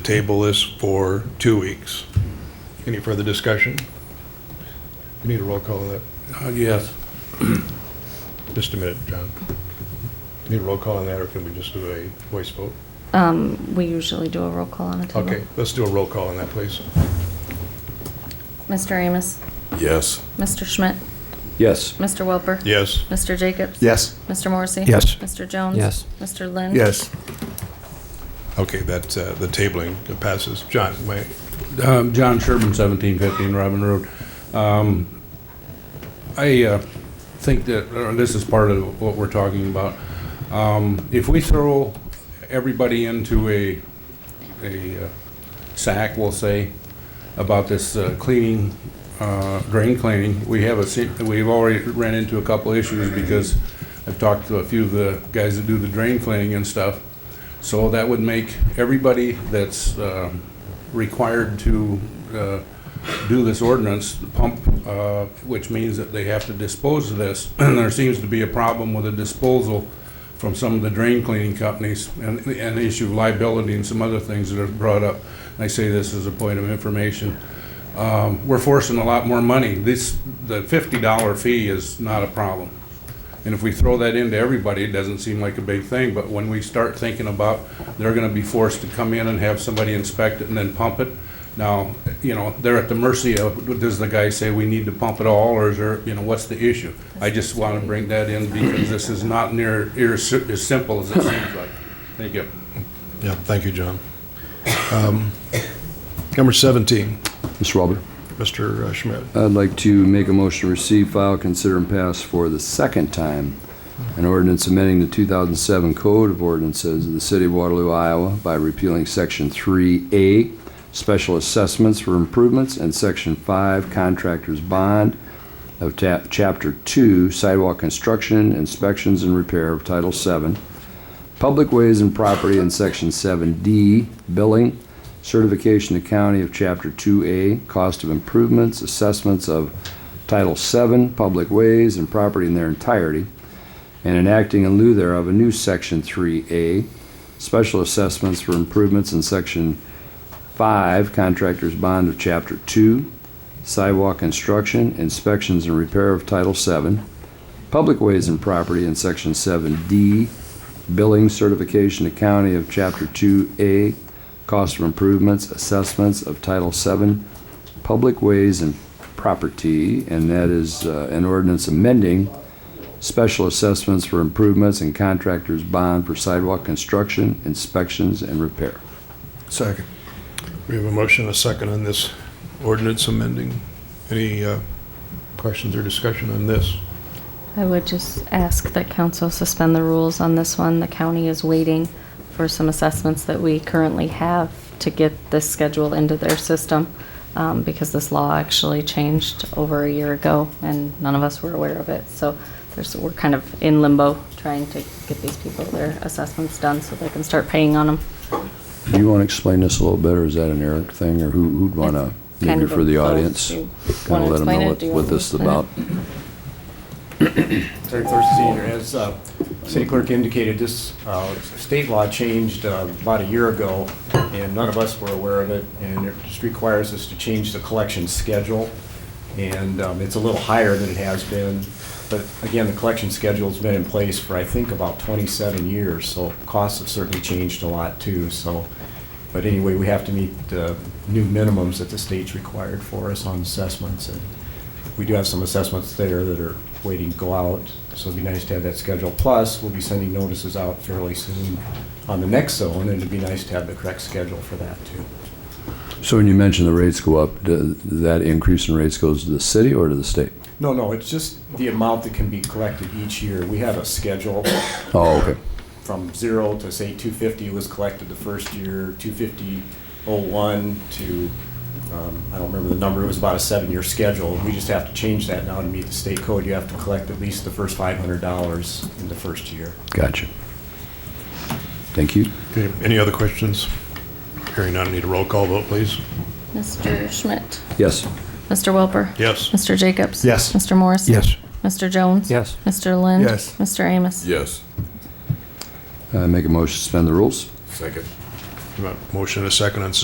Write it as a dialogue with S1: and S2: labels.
S1: Table this for two weeks. Any further discussion? We need a roll call on that.
S2: Yes.
S1: Just a minute, John. Need a roll call on that, or can we just do a voice vote?
S3: Um, we usually do a roll call on a table.
S1: Okay, let's do a roll call on that, please.
S3: Mr. Amos,
S2: Yes.
S3: Mr. Schmidt,
S4: Yes.
S3: Mr. Welper.
S1: Yes.
S3: Mr. Jacobs.
S4: Yes.
S3: Mr. Morrissey.
S4: Yes.
S3: Mr. Jones.
S4: Yes.
S3: Mr. Lynn.
S1: Okay, that, uh, the tabling passes. John, wait.
S2: Um, John Sherman, seventeen fifteen Robin Road. Um, I, uh, think that, uh, this is part of what we're talking about. Um, if we throw everybody into a, a uh, sack, we'll say, about this uh, cleaning, uh, drain cleaning, we have a, se- we've already ran into a couple issues because I've talked to a few of the guys that do the drain cleaning and stuff. So that would make everybody that's um, required to uh, do this ordinance, pump, uh, which means that they have to dispose of this. And there seems to be a problem with the disposal from some of the drain cleaning companies and, and the issue of liability and some other things that are brought up. I say this as a point of information. Um, We're forcing a lot more money. This, the $50 fee is not a problem. And if we throw that into everybody, it doesn't seem like a big thing, but when we start thinking about, they're gonna be forced to come in and have somebody inspect it and then pump it. Now, you know, they're at the mercy of, does the guy say we need to pump it all, or is there, you know, what's the issue? I just wanna bring that in because this is not near, ear- as simple as it seems like. Thank you.
S1: Yeah, thank you, John. Um, Number 17,
S4: Mr. Walber,
S1: Mr. Schmidt.
S4: I'd like to make a motion to receive, file, consider, and pass for the second time an ordinance amending the 2007 Code of Ordinances of the City of Waterloo, Iowa by repealing Section 3A, Special Assessments for Improvements, and Section 5, Contractors Bond of ta- Chapter 2, Sidewalk Construction, Inspections, and Repair of Title 7, Public Ways and Property in Section 7D, Billing, certification to county of Chapter 2A, cost of improvements, assessments of Title VII, public ways and property in their entirety, and enacting in lieu thereof a new Section 3A, special assessments for improvements in Section 5, contractor's bond of Chapter 2, sidewalk construction, inspections and repair of Title VII, public ways and property in Section 7D, billing certification to county of Chapter 2A, cost of improvements, assessments of Title VII, public ways and property, and that is uh, an ordinance amending special assessments for improvements and contractors bond for sidewalk construction, inspections, and repair.
S1: Second. We have a motion, and a second on this ordinance amending. Any uh, questions or discussion on this?
S3: I would just ask that council suspend the rules on this one. The county is waiting for some assessments that we currently have to get this schedule into their system, um, because this law actually changed over a year ago, and none of us were aware of it. So there's, we're kind of in limbo, trying to get these people their assessments done so they can start paying on them.
S4: Do you want to explain this a little better? Is that an Eric thing, or who- who'd want to,
S3: It's kind
S4: maybe
S3: of
S4: for the
S3: both.
S4: audience?
S3: Do you
S4: Kind
S3: wanna
S4: of let them
S3: explain it?
S4: know
S3: Do you
S4: what what
S3: want me to
S4: this is
S3: explain it?
S4: about?
S5: Attorney Thurston Senior, as uh, City Clerk indicated, this uh, state law changed uh, about a year ago, and none of us were aware of it, and it just requires us to change the collection schedule, and um, it's a little higher than it has been, but again, the collection schedule's been in place for, I think, about 27 years, so costs have certainly changed a lot, too, so, but anyway, we have to meet the new minimums that the state's required for us on assessments, and we do have some assessments there that are waiting to go out, so it'd be nice to have that schedule. Plus, we'll be sending notices out fairly soon on the next zone, and it'd be nice to have the correct schedule for that, too.
S4: So when you mention the rates go up, do- that increase in rates goes to the city or to the state?
S5: No, no, it's just the amount that can be collected each year. We have a schedule
S4: Oh, okay.
S5: from zero to, say, 250 was collected the first year, 250.01 to, um, I don't remember the number, it was about a seven-year schedule. We just have to change that now to meet the state code. You have to collect at least the first $500 in the first year.
S4: Gotcha. Thank you.
S1: Okay, any other questions? Hearing none, need a roll call vote, please.
S3: Mr. Schmidt.
S4: Yes.
S3: Mr. Welper.
S1: Yes.
S3: Mr. Jacobs.
S1: Yes.
S3: Mr. Morrissey. Mr. Jones.
S4: Yes.
S3: Mr. Lind.
S1: Yes.
S3: Mr. Amos.
S2: Yes.
S4: Uh, Make a motion to suspend the rules?
S2: Second.
S1: Motion and a second on suspension